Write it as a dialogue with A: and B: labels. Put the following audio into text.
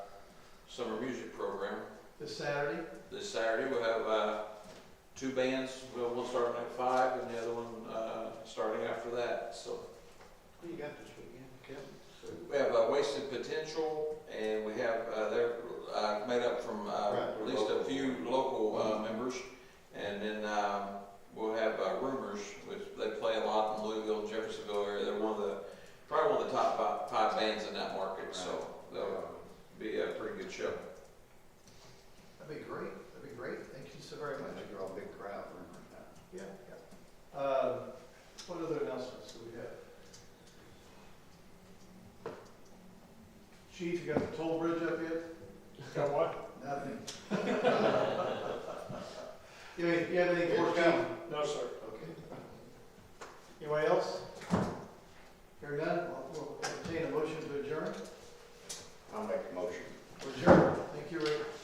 A: summer music program.
B: this Saturday.
A: This Saturday, we'll have, uh, two bands, we'll, one starting at five and the other one, uh, starting after that, so.
B: Who you got this weekend, Kevin?
A: We have uh, Wasted Potential, and we have, uh, they're uh, made up from uh,
B: Right,
A: at least a few local uh, members. And then um, we'll have uh, Rumors, which they play a lot in Louisville, Jeffersonville area. They're one of the, probably one of the top fi- five bands in that market, so they'll be a pretty good show.
B: That'd be great, that'd be great, thank you so very
C: I
B: much.
C: think they're all big crowd, remember that?
B: Yeah, yeah. Um, What other announcements do we have? Chief, you got the toll bridge up yet?
D: Got what?
B: Nothing. You have, you have anything for us, Chief?
D: No, sir.
B: Okay. Anybody else? Hearing none, we'll we'll entertain a motion to adjourn.
C: I'll make a motion.